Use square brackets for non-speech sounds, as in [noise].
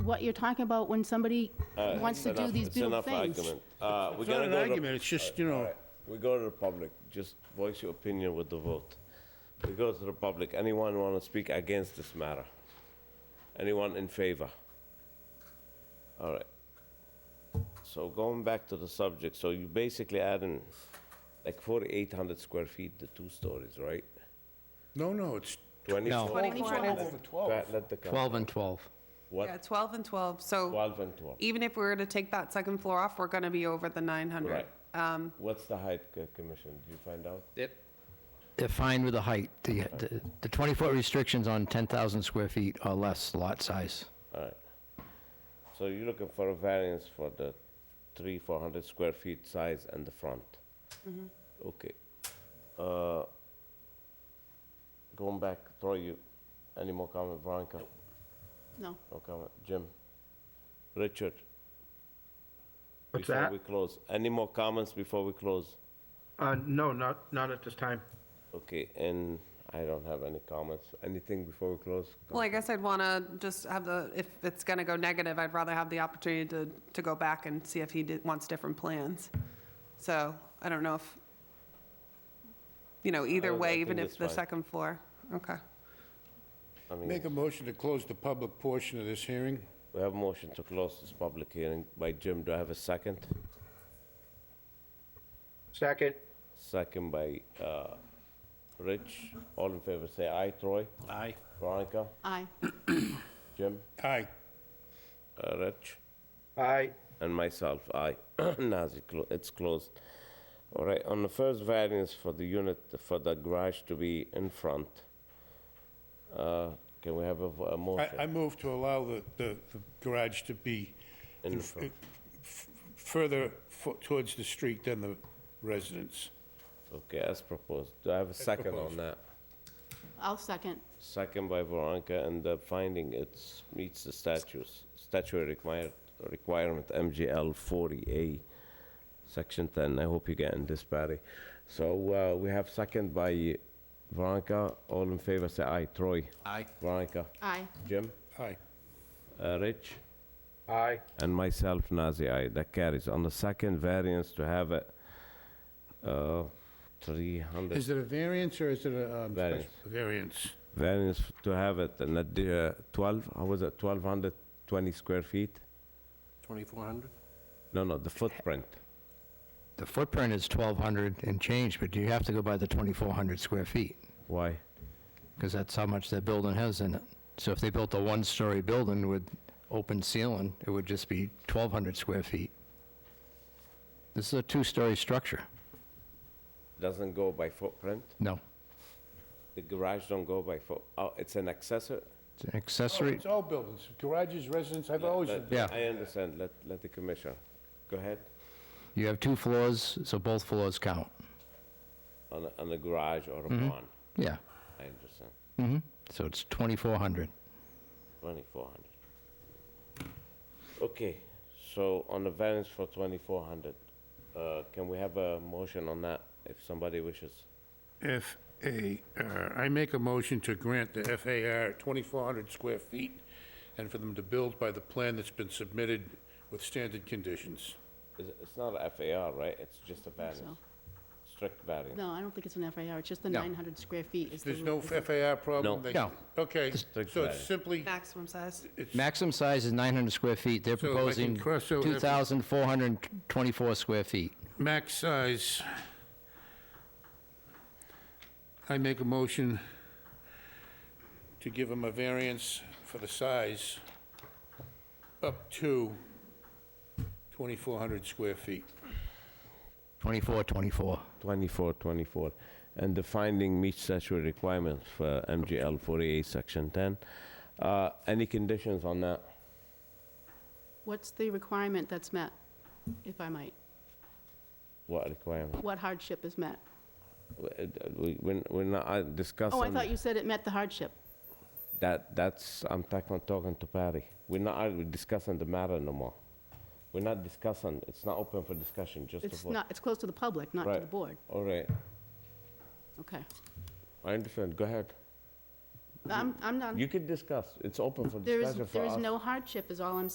what you're talking about when somebody wants to It's do Uh, enough- these beautiful things. It's enough argument. Uh, We're It's not gonna an go to- argument, it's just, you know, We go to the public, just voice your opinion with the vote. We go to the public, anyone want to speak against this matter? Anyone in favor? All right. So going back to the subject, so you basically adding like 4,800 square feet, the two stories, right? no, no, it's, 24? Twenty-four. Let let the count. 12 and 12. Yeah, What? 12 and 12, so 12 and 12. even if we were to take that second floor off, we're gonna be over the 900. Right. Um, What's the height, uh, Commissioner? Did you find out? They're fine with the height. The- The the 20-foot restrictions on 10,000 square feet or less lot size. All right. So you're looking for a variance for the three, four hundred square feet size and the front? Okay. Uh, Going back, Troy, you, any more comment, Veronica? No. No comment, Jim? Richard? What's Before that? we close, any more comments before we close? Uh, no, not, not at this time. Okay, and I don't have any comments. Anything before we close? Well, I guess I'd wanna just have the, if it's gonna go negative, I'd rather have the opportunity to, to go back and see if he did- wants different plans. So I don't know if, you know, I- either I way, think even that's if the fine. second floor, okay. I mean- make a motion to close the public portion of this hearing. We have a motion to close this public hearing by Jim. Do I have a second? Second, Second by uh, Rich. All in favor, say aye. Troy? Aye. Veronica? Aye. Jim? Aye. Uh, Rich? aye. And myself, aye. [clears throat] Nazi, clo- it's closed. All right, on the first variance for the unit, for the garage to be in front, uh, can we have a vo- a I, I motion? move to allow the, the the garage to be In f- front. f- further fo- towards the street than the residence. Okay, as proposed. Do I have a second on proposed. that? I'll second. Second by Veronica, and the finding it meets the statutes, statutory require- requirement, MGL 40A, Section 10. I hope you get in this, Patty. So uh, we have second by Veronica. All in favor, say aye. Troy? Aye. Veronica? Aye. Jim? Aye. Uh, Rich? Aye. And myself, Nazi, aye. That carries. On the second variance to have a uh, 300... Is it a variance or is it a? um, special- Variance. Variance. variance to have it, and that the, uh, 12, how was it, 1,220 square feet? 2,400? No, no, the footprint. The footprint is 1,200 and change, but you have to go by the 2,400 square feet, Why? because that's how much that building has in it. So if they built a one-story building with open ceiling, it would just be 1,200 square feet. This is a two-story structure. Doesn't go by footprint? No, The garage don't go by foot, oh, it's an accessory? it's an Oh, accessory. It's all buildings, garages, residence, I've always. Let- Yeah. I understand, let, let the commissioner, go ahead, You have two floors, so both floors count. on, a- on a garage or a barn, Yeah. I understand, hmm So it's 2,400. 2,400. Okay, so on the variance for 2,400, uh, can we have a motion on that, if somebody wishes? F A R. I make a motion to grant the FAR 2,400 square feet and for them to build by the plan that's been submitted with standard conditions. Is it- It's not a FAR, right? It's just a variance, strict variance. No, I don't think it's an FAR, it's just the No. 900 square feet. is the There's no rule. FAR No. problem? they- No. Okay, Strict so it's variance. simply, Maximum size. Maximum size is 900 square feet. They're So if I can proposing cross out every- 2,424 square feet. max size. I make a motion to give them a variance for the size up to 2,400 square feet. 24, 24. 24, 24. And the finding meets statutory requirements for MGL 48, Section 10. Uh, Any conditions on that? What's the requirement that's met, if I might? What requirement? What hardship is met? We- we- We're we're not uh, discussing. Oh, I thought you said it met the hardship. That, that's, I'm talking, talking to Patty. We're not argu- discussing the matter no more. We're not discussing, it's not open for discussion, just a It's vote. not, it's close to the public, not to the Right. board. All right, Okay. I understand, go ahead. I'm, I'm not, You can discuss. It's open for there is, discussion for Um, there us. is no hardship, is all I'm